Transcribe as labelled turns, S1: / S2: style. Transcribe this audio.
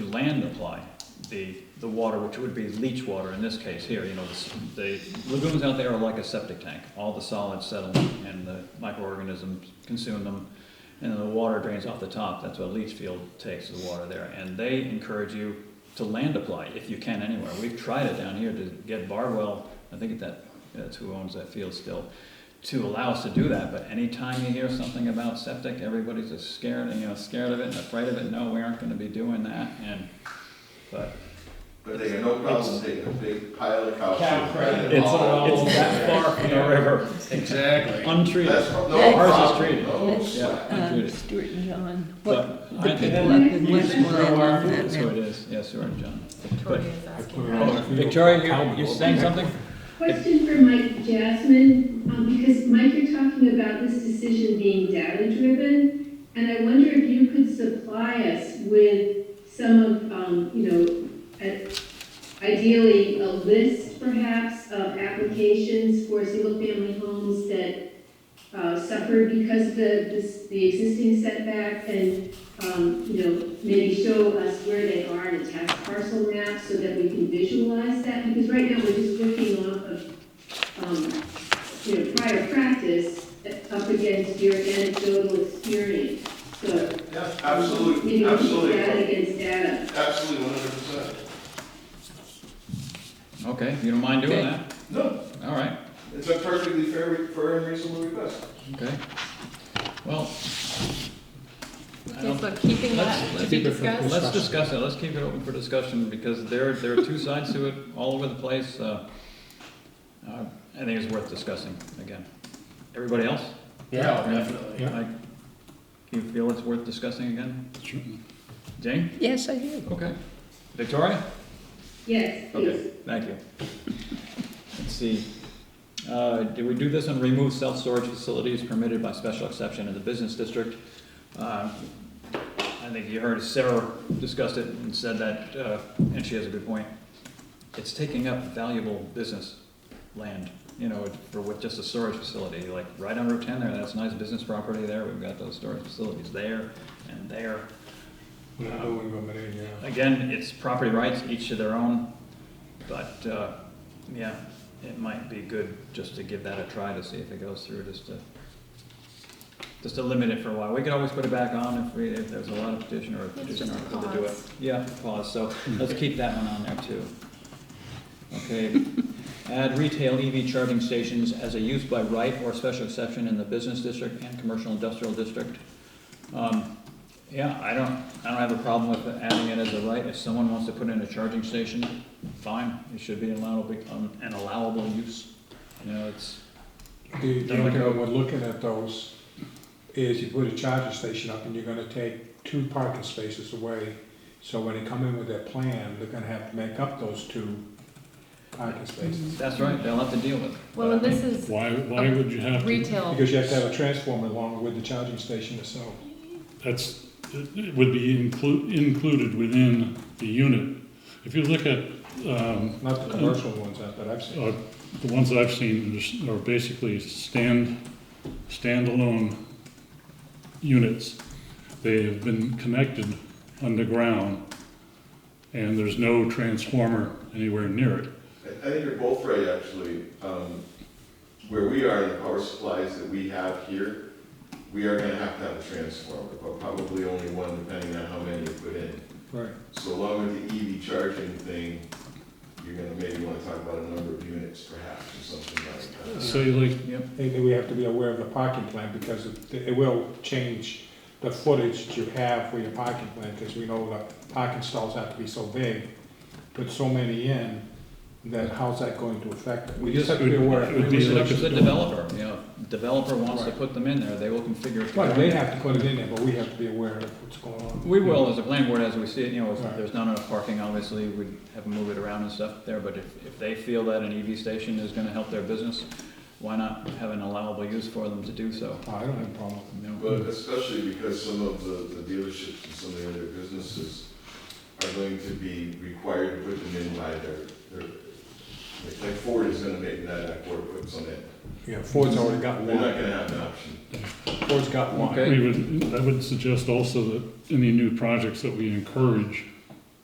S1: land apply? The, the water, which would be leach water in this case here, you know, the s- the lagoons out there are like a septic tank. All the solids settle and the microorganisms consume them. And then the water drains off the top, that's what a leach field takes, the water there. And they encourage you to land apply, if you can anywhere. We've tried it down here to get Barwell, I think that, that's who owns that field still, to allow us to do that, but anytime you hear something about septic, everybody's just scared, and, you know, scared of it and afraid of it, no, we aren't gonna be doing that, and, but.
S2: But they got no problem taking a big pile of cow.
S3: Cow
S2: shit,
S3: crap.
S2: and
S1: It's,
S2: all-
S3: all
S1: it's that far from the river,
S3: Exactly.
S2: That's
S1: untreated,
S2: no
S1: Ours is
S2: problem,
S1: treated.
S2: no
S1: yeah,
S2: sweat.
S4: Um,
S1: untreated.
S4: Stuart and John,
S1: But
S4: what,
S1: I think-
S4: the people up
S3: You
S4: in
S3: should
S4: Westmoreland
S3: grow our
S4: love that
S1: that's who
S4: now.
S1: it is, yes, you are, John.
S5: Victoria is asking.
S1: Oh, Victoria, you're, you're saying something?
S6: Question for Mike Jasmine, um, because Mike, you're talking about this decision being data-driven, and I wonder if you could supply us with some of, um, you know, a- ideally, a list perhaps of applications for single-family homes that, uh, suffered because of the, this, the existing setback, and, um, you know, maybe show us where they are in a tax parcel map so that we can visualize that, because right now we're just working off of, um, you know, prior practice up against your anecdotal experience, so. um,
S2: Yeah,
S6: Maybe
S2: absolutely,
S6: we can use data
S2: absolutely,
S6: against data.
S2: absolutely, one hundred percent.
S1: Okay, you don't mind doing that?
S2: No,
S1: All right,
S2: it's a perfectly fair, fair and reasonable request.
S1: okay. Well, I
S5: Okay,
S1: don't,
S5: so keeping that
S1: Let's-
S5: to be
S3: let's-
S5: discussed.
S1: Let's discuss it, let's keep it open for discussion, because there, there are two sides to it, all over the place. uh, uh, I think it's worth discussing again. Everybody else?
S3: Yeah, Oh, definitely.
S1: Mike, You feel it's worth discussing again? Jane?
S4: Yes, I do.
S1: Okay. Victoria?
S6: Yes, please.
S1: Okay, thank you. Let's see, uh, did we do this on remove self-storage facilities permitted by special exception in the business district? Uh, I think you heard Sarah discussed it and said that, uh, and she has a good point. It's taking up valuable business land, you know, for with just a storage facility, like right on Route ten there, that's nice business property there, we've got those storage facilities there and there. Again, it's property rights, each to their own, but, uh, yeah, it might be good just to give that a try to see if it goes through, just to, just to limit it for a while. We could always put it back on if we, if there's a lot of petition or a
S5: It's
S1: petitioner
S5: just a
S1: to do it.
S5: pause.
S1: Yeah, pause, so let's keep that one on there too. Okay, add retail EV charging stations as a use by right or special exception in the business district and commercial industrial district. Um, yeah, I don't, I don't have a problem with adding it as a right, if someone wants to put in a charging station, fine, it should be allowable, um, an allowable use. You know, it's,
S7: The the only thing we're looking at those is you put a charging station up and you're gonna take two parking spaces away. So when they come in with their plan, they're gonna have to make up those two parking spaces.
S1: that's right, they'll have to deal with it.
S5: Well, and this is
S8: Why, why would you have to,
S5: retail,
S7: Because you have to have a transformer along with the charging station itself.
S8: that's, it would be inclu- included within the unit. If you look at, um,
S7: Not the commercial ones out that I've seen.
S8: uh, the ones I've seen is- are basically stand, standalone units. They have been connected underground, and there's no transformer anywhere near it.
S2: I I think you're both right, actually. Um, Where we are in the power supplies that we have here, we are gonna have to have a transformer, but probably only one, depending on how many you put in.
S7: Right.
S2: So along with the EV charging thing, you're gonna maybe wanna talk about a number of units perhaps, or something like that.
S8: Say like,
S1: Yep,
S7: And then we have to be aware of the parking plan because it it will change the footage that you have for your parking plan, because we know the parking stalls have to be so big, put so many in, that how's that going to affect it? We just have to be aware.
S8: It would
S1: we
S8: be
S1: should
S8: like
S1: up to
S8: a-
S1: the developer, you know, developer wants to put them in there, they will configure. it.
S7: Right, they have to put it in there, but we have to be aware of what's going on.
S1: We will, as a planning board, as we see it, you know, if there's not enough parking, obviously, we'd have to move it around and stuff there, but if, if they feel that an EV station is gonna help their business, why not have an allowable use for them to do so?
S7: Oh, I don't have a problem.
S1: you know?
S2: But especially because some of the the dealerships and some of the other businesses are going to be required to put them in by their, their, like Ford is gonna make that, that Ford puts them in.
S7: Yeah, Ford's already got
S2: They're not
S7: one,
S2: gonna have an option.
S7: Ford's got one.
S1: Okay.
S8: We would, I would suggest also that any new projects that we encourage